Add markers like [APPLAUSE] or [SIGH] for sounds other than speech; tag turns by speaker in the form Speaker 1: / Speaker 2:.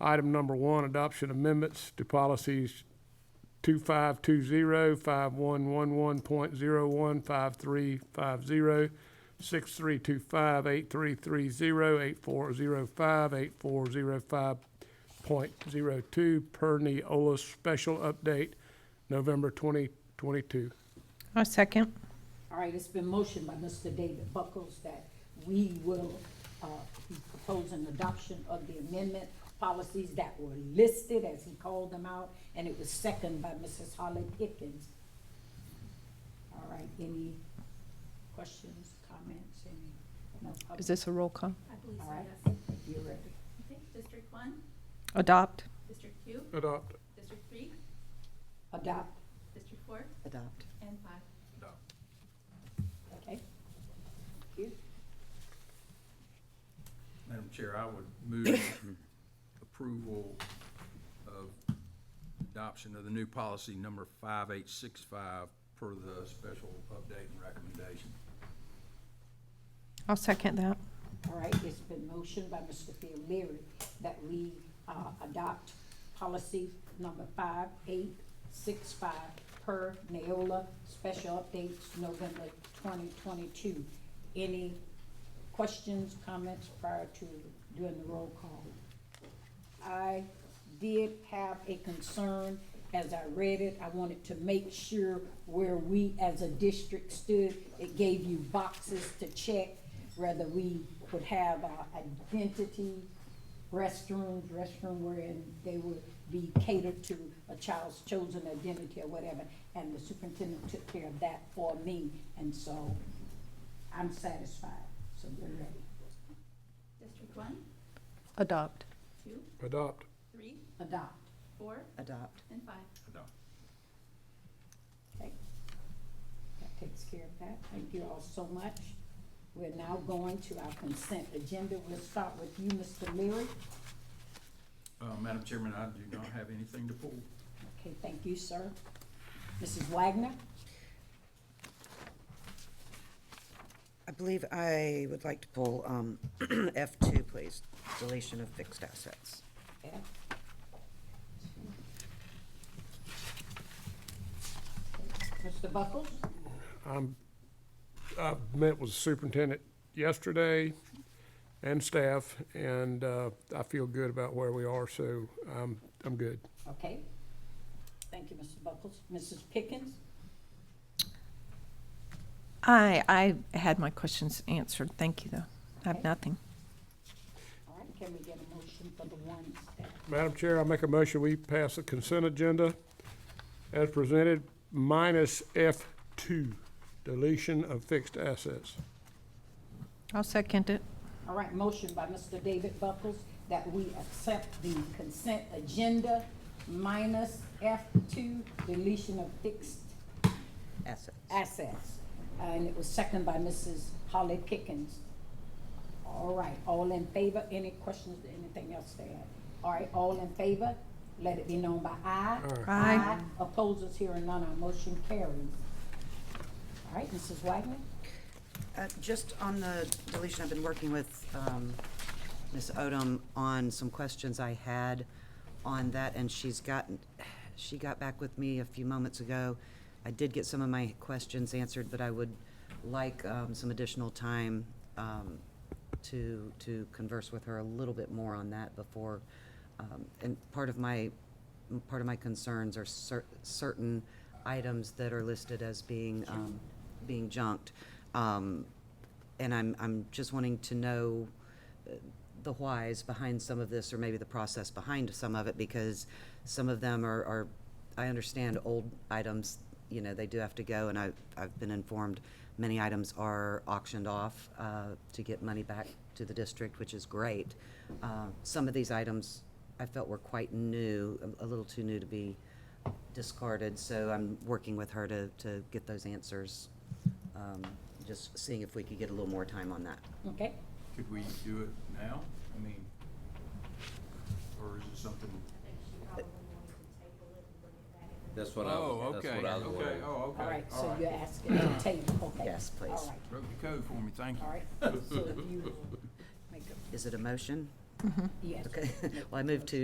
Speaker 1: Item number one, adoption amendments to policies 2520, 5111.01, 5350, 6325, 8330, 8405, 8405.02, per Neola's special update, November 2022.
Speaker 2: I second.
Speaker 3: All right, it's been motioned by Mr. David Buckles that we will uh, be proposing adoption of the amendment policies that were listed as he called them out, and it was seconded by Mrs. Holly Pickens. All right, any questions, comments, any? no,
Speaker 2: Is this a roll call?
Speaker 4: I believe so,
Speaker 3: All right.
Speaker 4: yes.
Speaker 3: You're ready.
Speaker 4: Okay, District one,
Speaker 2: Adopt.
Speaker 4: District two,
Speaker 1: Adopt.
Speaker 4: District three,
Speaker 3: Adopt,
Speaker 4: District four,
Speaker 5: Adopt.
Speaker 4: and five.
Speaker 3: okay? Thank you.
Speaker 6: Madam Chair, I would move [COUGHS] approval of adoption of the new policy number 5865 per the special update and recommendation.
Speaker 2: I'll second that.
Speaker 3: All right, it's been motioned by Mr. Phil Leary that we, uh, adopt policy number five eight six five per Neola, special updates November twenty twenty-two. Any questions, comments prior to doing the roll call? I did have a concern as I read it. I wanted to make sure where we as a district stood. It gave you boxes to check whether we would have our identity, restrooms, restroom wherein they would be catered to a child's chosen identity or whatever. And the superintendent took care of that for me, and so I'm satisfied. So we're ready.
Speaker 4: District one,
Speaker 2: Adopt.
Speaker 4: two,
Speaker 1: Adopt.
Speaker 4: three,
Speaker 3: Adopt.
Speaker 4: four,
Speaker 5: Adopt.
Speaker 4: and five.
Speaker 6: Adopt.
Speaker 3: Okay. That takes care of that. Thank you all so much. We're now going to our consent agenda. We'll start with you, Mr. Leary.
Speaker 6: Uh, Madam Chairman, I do not have anything to pull.
Speaker 3: Okay, thank you, sir. Mrs. Wagner?
Speaker 5: I believe I would like to pull um, [CLEARS THROAT] F2, please, deletion of fixed assets.
Speaker 3: Yeah. Mr. Buckles?
Speaker 1: I'm, I met with the superintendent yesterday and staff, and uh, I feel good about where we are, so I'm, I'm good.
Speaker 3: Okay. Thank you, Mr. Buckles. Mrs. Pickens?
Speaker 2: I, I had my questions answered. Thank you, though. I have nothing.
Speaker 3: All right, can we get a motion for the ones that
Speaker 1: Madam Chair, I make a motion, we pass the consent agenda as presented, minus F2, deletion of fixed assets.
Speaker 2: I'll second it.
Speaker 3: All right, motion by Mr. David Buckles that we accept the consent agenda minus F two, deletion of fixed
Speaker 5: Assets.
Speaker 3: assets. And it was seconded by Mrs. Holly Pickens. All right, all in favor? Any questions, anything else there? All right, all in favor? Let it be known by aye.
Speaker 2: Aye.
Speaker 3: Opposers here and none, our motion carries. All right, Mrs. Wagner?
Speaker 5: Uh, Just on the deletion, I've been working with um, Ms. Odom on some questions I had on that, and she's gotten, she got back with me a few moments ago. I did get some of my questions answered, but I would like um, some additional time um, to, to converse with her a little bit more on that before. um, And part of my, part of my concerns are cer- certain items that are listed as being, um, being junked. Um, And I'm, I'm just wanting to know uh, the whys behind some of this, or maybe the process behind some of it, because some of them are, are, I understand old items, you know, they do have to go, and I, I've been informed many items are auctioned off, uh, to get money back to the district, which is great. Uh, some of these items I felt were quite new, a- a little too new to be discarded, so I'm working with her to, to get those answers. Um, just seeing if we could get a little more time on that.
Speaker 3: Okay,
Speaker 6: Could we do it now? I mean, or is it something?
Speaker 7: That's what I was, that's what I was
Speaker 6: Oh, Okay,
Speaker 7: wondering.
Speaker 6: oh, okay.
Speaker 3: all right, so
Speaker 6: right.
Speaker 3: you're asking to table, okay.
Speaker 5: Yes, please.
Speaker 3: All right.
Speaker 6: Broke the code for me, thank you.
Speaker 3: All right, so if you make a,
Speaker 5: Is it a motion?
Speaker 3: yes.
Speaker 5: Okay, [LAUGHS] well, I move to